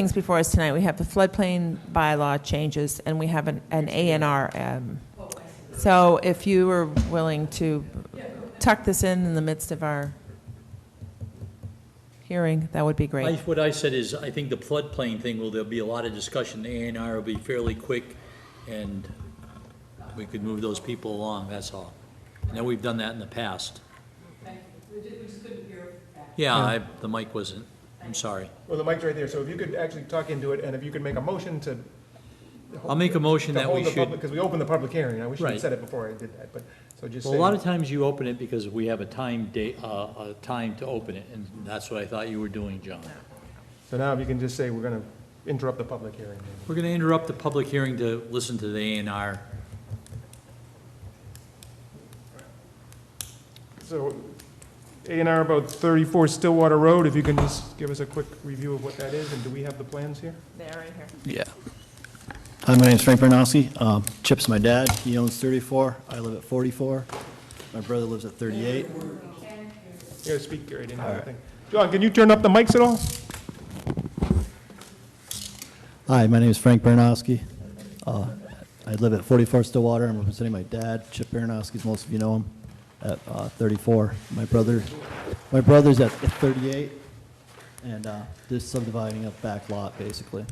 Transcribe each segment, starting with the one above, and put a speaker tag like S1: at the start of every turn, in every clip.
S1: things before us tonight. We have the floodplain bylaw changes, and we have an A and R. um, So if you were willing to tuck this in in the midst of our hearing, that would be
S2: I-
S1: great.
S2: What I said is, I think the floodplain thing, will there'll be a lot of discussion, the A and R will be fairly quick, and we could move those people along, that's all. I know we've done that in the past. Yeah, I, the mic wasn't, I'm sorry.
S3: Well, the mic's right there, so if you could actually talk into it, and if you could make a motion to.
S2: I'll make a motion
S3: to
S2: that we
S3: hold the
S2: should,
S3: public,
S2: well,
S3: because we opened the public hearing, I wish you'd
S2: Right.
S3: said it before I did that, but, so just
S2: a
S3: say.
S2: lot of times you open it because we have a time date, uh, a time to open it, and that's what I thought you were doing, John.
S3: So now if you can just say, we're gonna interrupt the public hearing.
S2: We're gonna interrupt the public hearing to listen to the A and R.
S3: So, A and R about thirty-four Stillwater Road, if you can just give us a quick review of what that is, and do we have the plans here?
S1: There, right here.
S4: Yeah. Hi, my name's Frank Bernowski. Um, Chip's my dad. He owns 34. I live at 44. My brother lives at 38.
S3: You gotta speak, Gary, I didn't hear anything. John, can you turn up the mics at all?
S4: Hi, my name is Frank Bernowski. Uh, I live at 44 Stillwater. I'm representing my dad, Chip Bernowski, as most of you know him, at uh, 34. My brother, my brother's at 38, and uh, they're subdividing a back lot, basically,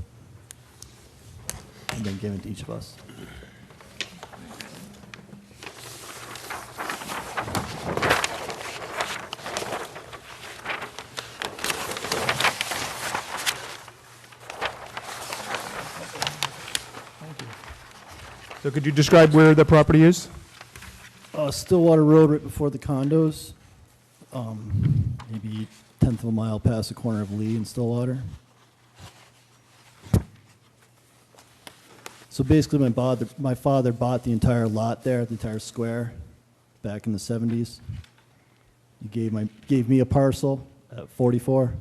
S4: and then giving to each of us.
S3: So could you describe where the property is?
S4: Uh, Stillwater Road, right before the condos, um, maybe tenth of a mile past the corner of Lee and Stillwater. So basically, my father, my father bought the entire lot there, the entire square, back in the seventies. He gave my, gave me a parcel at forty-four,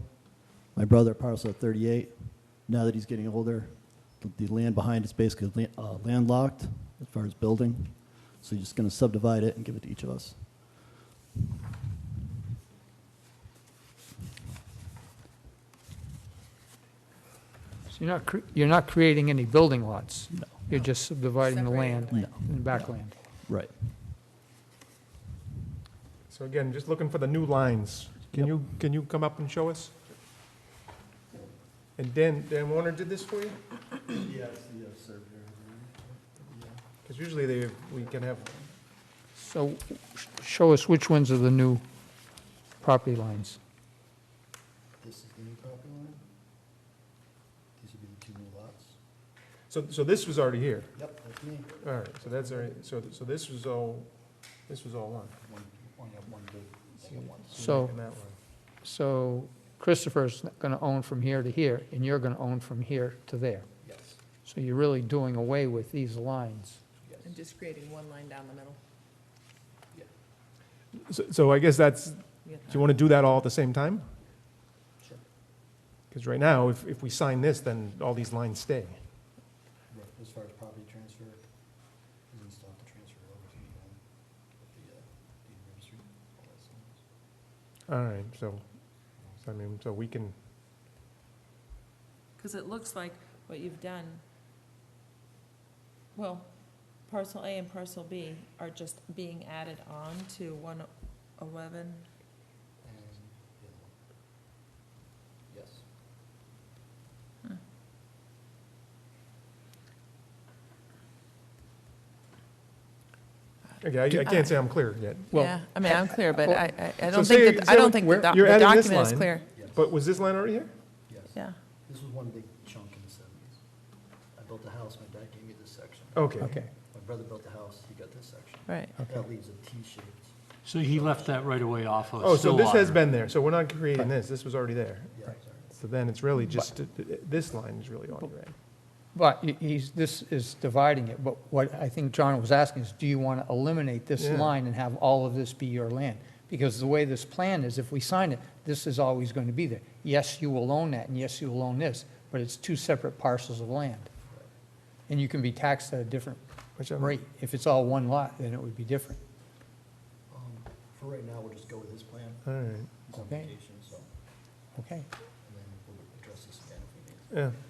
S4: my brother a parcel at thirty-eight. Now that he's getting older, the- the land behind is basically la- uh, landlocked as far as building. So you're just going to subdivide it and give it to each of us.
S5: So you're not, cre- you're not creating any building lots?
S4: No.
S5: You're just subdividing the
S1: Separating
S5: land
S4: the land.
S5: and backland?
S4: Right.
S3: So again, just looking for the new lines. Can
S4: Yep.
S3: you, can you come up and show us? And Dan, Dan Warner did this for you?
S4: Yes,
S3: Because usually they, we can have,
S5: So sh- show us which ones are the new property lines.
S4: This is the new property line. These would be the two new lots.
S3: so, so this was already here.
S4: Yep, that's me.
S3: All right, so that's all right, so, so this was all, this was all on.
S4: One, one, yeah, one big.
S3: So
S5: So, so Christopher's going to own from here to here, and you're going to own from here to there.
S4: Yes.
S5: So you're really doing away with these lines.
S1: I'm just creating one line down the middle.
S3: So, so I guess that's, do you want to do that all at the same time?
S4: Sure.
S3: Because right now, if, if we sign this, then all these lines stay.
S4: Right, as far as property transfer, you can still have to transfer over to the, um, the, uh, deed registry. all that stuff.
S3: All right, so, so I mean, so we can,
S1: Because it looks like what you've done, well, parcel A and parcel B are just being added on to one eleven.
S4: And the other one. Yes.
S3: okay, I- I can't say I'm clear yet.
S5: Well,
S1: Yeah, I mean, I'm clear, but
S5: well-
S1: I, I- I
S3: So
S1: don't
S3: say-
S1: think, that-
S3: say
S1: I don't
S3: like
S1: think the
S3: where-
S1: doc-
S3: you're
S1: the
S3: adding this
S1: document is
S3: line.
S1: clear,
S4: Yes.
S3: But was this line already here?
S4: Yes.
S1: yeah.
S4: This was one big chunk in the seventies. I built a house, my dad gave me this section.
S3: Okay.
S4: My brother built the house, he got this section.
S1: Right.
S4: That leaves a T-shaped,
S2: So he left that right away off
S3: Oh, so this has been there, so we're not creating this, this was already there.
S4: yeah, sorry.
S3: So then it's really just, this line is really all right.
S5: But he- he's, this is dividing it, but what I think John was asking is, do you want to eliminate this
S3: Yeah.
S5: line and have all of this be your land? Because the way this plan is, if we sign it, this is always going to be there. Yes, you will own that, and yes, you will own this, but it's two separate parcels of land. And you can be taxed at a different
S3: Which I'm-
S5: rate. If it's all one lot, then it would be different.
S4: Um, For right now, we'll just go with his plan,
S3: All right.
S4: his
S5: Okay.
S4: application, so,
S5: Okay?
S4: and then we'll address this again if we need to.
S3: yeah.